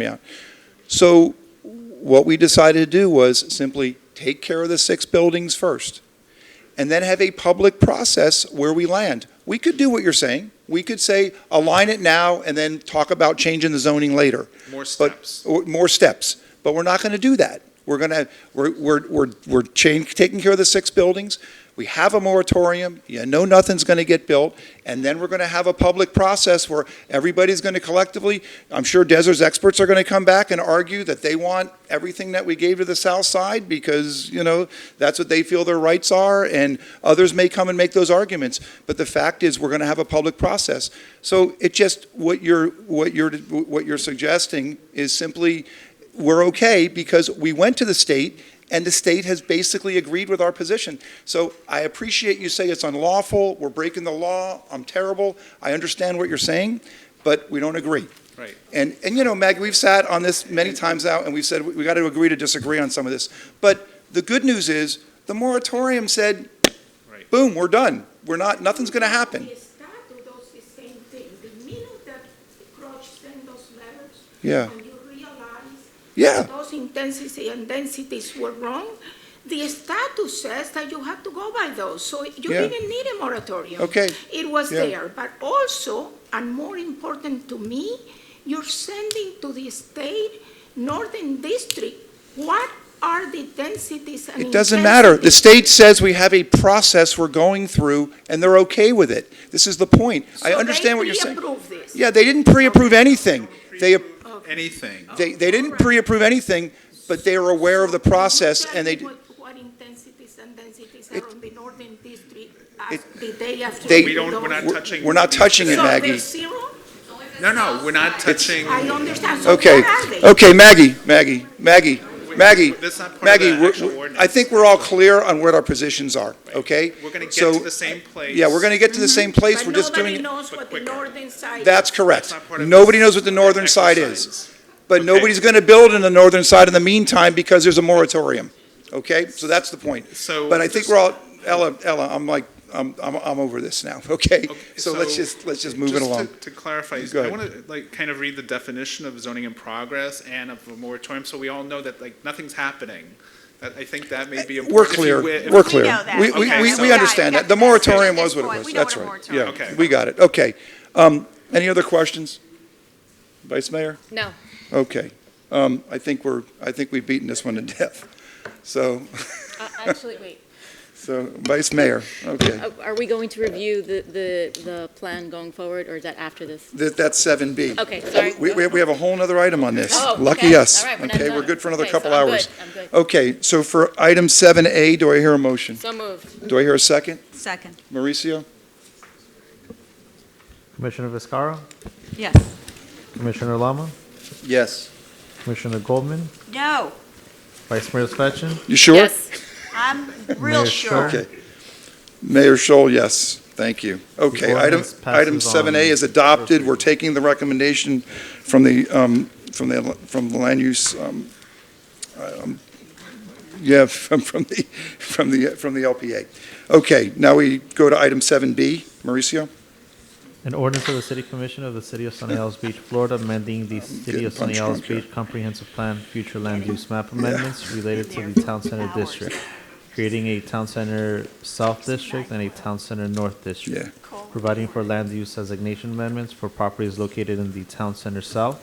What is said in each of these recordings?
Yeah. So what we decided to do was simply take care of the six buildings first and then have a public process where we land. We could do what you're saying. We could say align it now and then talk about changing the zoning later, More steps. or more steps. But we're not going to do that. We're going to, we're, we're, we're, we're change, taking care of the six buildings. We have a moratorium. You know nothing's going to get built. And then we're going to have a public process where everybody's going to collectively, I'm sure Desert's experts are going to come back and argue that they want everything that we gave to the south side because, you know, that's what they feel their rights are, and others may come and make those arguments. But the fact is, we're going to have a public process. So it just, what you're, what you're, what you're suggesting is simply, we're okay because we went to the state, and the state has basically agreed with our position. So I appreciate you say it's unlawful, we're breaking the law, I'm terrible, I understand what you're saying, but we don't agree. Right. And, and you know, Maggie, we've sat on this many times now, and we've said, we got to agree to disagree on some of this. But the good news is, the moratorium said, Right. boom, we're done. We're not, nothing's going to happen. The statute does the same thing. The minute that Crouch sent those letters. Yeah. And you realize. Yeah. Those intensity and densities were wrong, the statute says that you have to go by those. So you Yeah. didn't need a moratorium. Okay. It was Yeah. there, but also, and more important to me, you're sending to the state, Northern District, what are the densities and It doesn't matter. The intensities? state says we have a process we're going through, and they're okay with it. This is the point. I So understand what you're saying. They pre-approve this. Yeah, they didn't pre-approve anything. They, Anything. they, they didn't Alright. pre-approve anything, but they are aware of the process, and they, Tell me What what intensities and densities It- are on the northern district as the day after? They- We don't, we're not We're- touching. we're not touching it, So Maggie. there's zero? No, no, we're not touching. I understand. So okay, what are they? okay, Maggie, Maggie, Maggie, Maggie, That's not part of Maggie, the we're- actual we're- ordinance. I think we're all clear on what our positions are, okay? We're going to So, get to the same place. Yeah, we're gonna get to the same place, Mm-hmm. But we're just doing, Nobody it- knows what the quicker. northern side. that's correct. That's not part of Nobody this knows what the northern side is. exercise. But Okay. nobody's going to build in the northern side in the meantime because there's a moratorium. Okay? So that's the point. So- But I think we're all, Ella, Ella, I'm like, I'm, I'm, I'm over this now, okay? Okay, So let's so just, let's just move it to- along. To clarify, Go I ahead. want to like kind of read the definition of zoning in progress and of a moratorium, so we all know that like nothing's happening. That- I think that may be important. We're if you clear, wi- if- we're We clear. know that. We, We we, know we, that. we Yeah, understand we that. The got the definition moratorium at was this what it point. was. We know That's what a right. Yeah, moratorium is. We got it. Okay. Um, any other questions? Vice Mayor? No. Okay. Um, I think we're, I think we've beaten this one to death. So, Uh, Actually, wait, so Vice Mayor, okay. Uh, are we going to review the, the, the plan going forward, or is that after this? That, that's 7B. Okay, sorry. We, we we have a whole nother item on this. Oh, Lucky okay. us. All right, we're not Okay, done. we're good for another Okay, so couple I'm good. hours. Oh. I'm good. Okay, so for item 7A, do I hear a motion? So moved. Do I hear a second? Second, Mauricio? Commissioner Viscara, yes. Commissioner Lama, Yes. Commissioner Goldman, No, Vice Mayor Svechen, You sure? Yes. I'm Mayor real Schur. sure. Okay. Mayor Scholl, yes. Thank you. Okay, item, ordinance passes item 7A on is adopted. We're taking the recommendation from the, um, from the, from the land use, um, um, yeah, from, from the, from the, from the LPA. Okay, now we go to item 7B. Mauricio? an ordinance of the City Commission of the City of Sunny Isles Beach, Florida, amending the City of getting Sunny punch Isles drunk here. Beach Comprehensive Plan Future Land Use Map Amendments related to the Town Center District, creating a Town Center South District and a Town Center North District. Yeah. Providing for land use designation amendments for properties located in the Town Center South,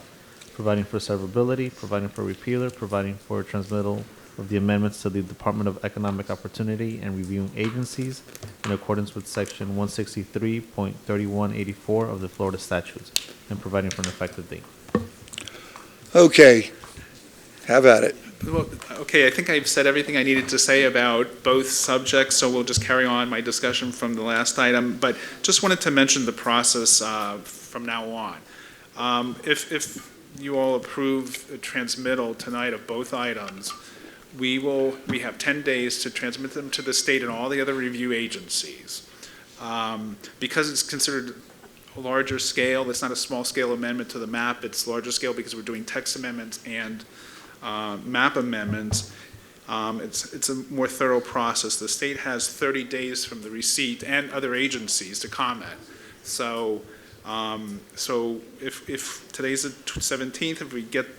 providing for severability, providing for repealer, providing for transmittal of the amendments to the Department of Economic Opportunity and reviewing agencies in accordance with Section 163.3184 of the Florida statutes, and providing for an effective date. Okay. Have at it. Well, Okay, I think I've said everything I needed to say about both subjects, so we'll just carry on my discussion from the last item. But just wanted to mention the process uh, from now on. Um, If, if you all approve a transmittal tonight of both items, we will, we have 10 days to transmit them to the state and all the other review agencies. Um, Because it's considered a larger scale, it's not a small-scale amendment to the map, it's larger scale because we're doing text amendments and uh, map amendments, um, it's, it's a more thorough process. The state has 30 days from the receipt and other agencies to comment. So, um, so if, if today's the 17th, if we get